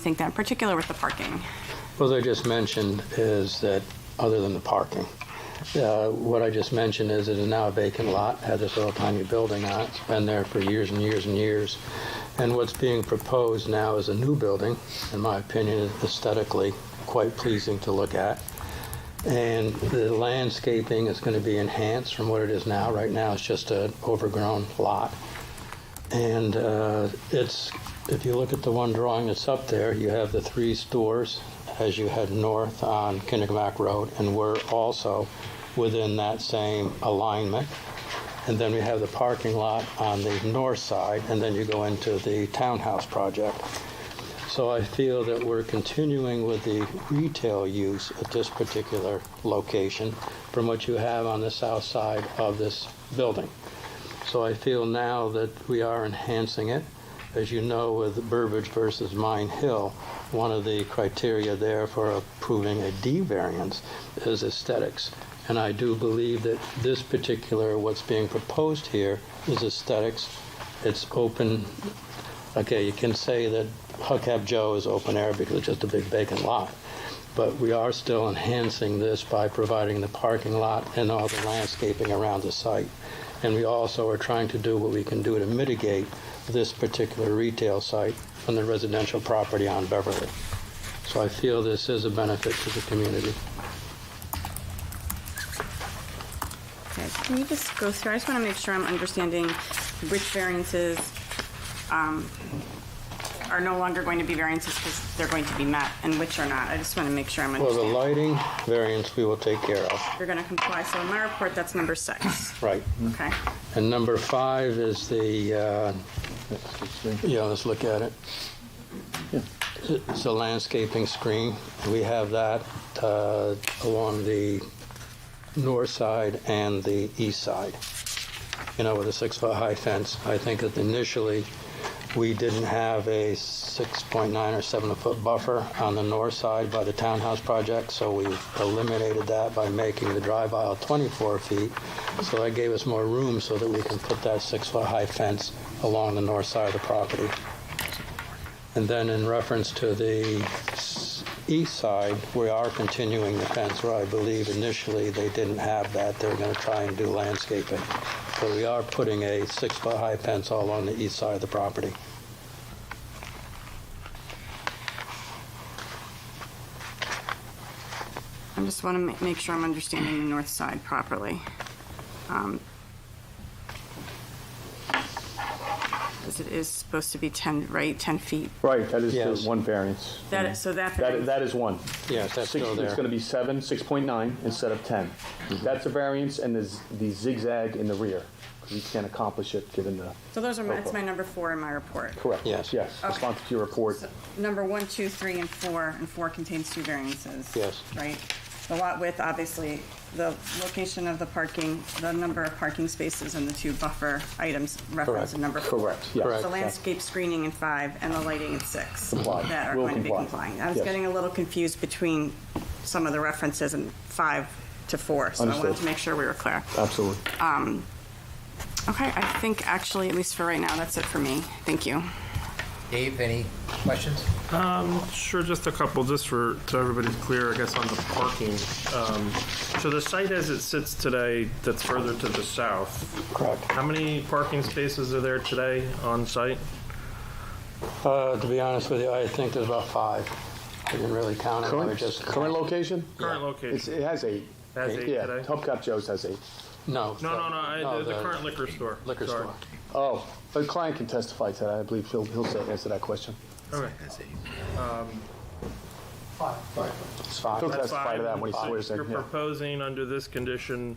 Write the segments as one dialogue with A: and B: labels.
A: think that in particular with the parking.
B: Well, I just mentioned is that, other than the parking, uh, what I just mentioned is it is now a vacant lot, has this little tiny building on it, it's been there for years and years and years. And what's being proposed now is a new building, in my opinion, is aesthetically quite pleasing to look at. And the landscaping is going to be enhanced from what it is now. Right now, it's just an overgrown lot. And uh, it's, if you look at the one drawing that's up there, you have the three stores as you head north on Kinnegmack Road, and we're also within that same alignment. And then we have the parking lot on the north side, and then you go into the townhouse project. So I feel that we're continuing with the retail use at this particular location from what you have on the south side of this building. So I feel now that we are enhancing it. As you know, with Burbridge versus Mine Hill, one of the criteria there for approving a D variance is aesthetics. And I do believe that this particular, what's being proposed here is aesthetics. It's open, okay, you can say that Huckab Joe is open air because it's just a big vacant lot. But we are still enhancing this by providing the parking lot and all the landscaping around the site. And we also are trying to do what we can do to mitigate this particular retail site from the residential property on Beverly. So I feel this is a benefit to the community.
A: Okay, Can you just go through, I just want to make sure I'm understanding which variances um, are no longer going to be variances because they're going to be met and which are not. I just want to make sure I'm
B: Well, the
A: understanding.
B: lighting variance we will take care of.
A: You're going to comply, so in my report, that's number six.
B: Right.
A: Okay,
B: And number five is the, uh, yeah, let's look at it. It's a landscaping screen. We have that uh, along the north side and the east side, you know, with a six-foot high fence. I think that initially, we didn't have a 6.9 or 7-foot buffer on the north side by the townhouse project, so we eliminated that by making the drive aisle 24 feet. So that gave us more room so that we can put that 6-foot high fence along the north side of the property. And then in reference to the s- east side, we are continuing the fence where I believe initially they didn't have that. They were going to try and do landscaping. But we are putting a six-foot high fence all on the east side of the property.
A: I just want to make sure I'm understanding the north side properly. Um, Because it is supposed to be 10, right, 10 feet?
C: Right, that is
B: Yes.
C: the one variance.
A: That is, so that.
C: Mm-hmm. That, that is one.
B: Yes, that's
C: Six-
B: still there. Mm-hmm.
C: It's going to be seven, 6.9 instead of 10. That's a variance, and there's the zigzag in the rear, because you can't accomplish it given the,
A: So those are, my- that's my number four in my report.
C: correct.
B: Yes.
C: Yes,
A: Okay.
C: responsive to your report.
A: Number one, two, three, and four, and four contains two variances.
B: Yes.
A: Right? The lot width, obviously, the location of the parking, the number of parking spaces, and the two buffer items referenced in number four.
C: Correct, yes.
B: Correct.
A: The landscape screening in five, and the lighting in six.
C: Comply.
A: That are
C: Will
A: going to be
C: comply.
A: complying. I was
C: Yes.
A: getting a little confused between some of the references in five to four, so I wanted
C: Understood.
A: to make sure we were clear.
C: Absolutely.
A: Okay, I think actually, at least for right now, that's it for me. Thank you.
D: Dave, any questions?
E: Sure, just a couple, just for, so everybody's clear, I guess, on the parking. Um, So the site as it sits today, that's further to the south.
B: Correct.
E: How many parking spaces are there today on site?
B: Uh, To be honest with you, I think there's about five. I didn't really count it. I was
C: Current,
B: just-
C: current location?
E: Current
C: It's-
E: location?
C: It has eight.
E: Has eight
C: Yeah,
E: today?
C: Hubcap Joe's has eight.
B: No.
E: No, no, no, I- the- the
B: the
E: current liquor store.
B: Liquor
E: Sorry.
B: store.
C: Oh, the client can testify to that, I believe he'll, he'll say- answer that question.
E: Okay.
B: It's
C: He'll
B: five,
E: That's
C: testify to
E: five.
C: that when he swears
E: You're
C: in, yeah.
E: proposing under this condition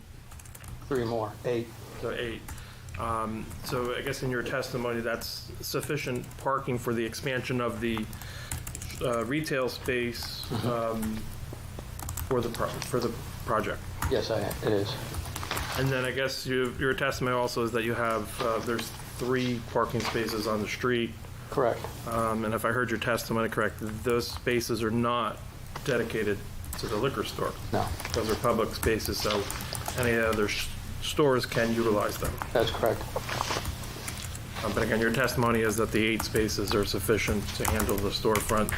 B: three more, eight.
E: So eight. Um, So I guess in your testimony, that's sufficient parking for the expansion of the uh, retail space um, for the, pro- for the project.
B: Yes, I, it is.
E: And then I guess you- your testimony also is that you have, uh, there's three parking spaces on the street.
B: Correct.
E: Um, And if I heard your testimony correct, those spaces are not dedicated to the liquor store.
B: No,
E: Those are public spaces, so any other s- stores can utilize them.
B: that's correct.
E: Um, Uh, But again, your testimony is that the eight spaces are sufficient to handle the storefront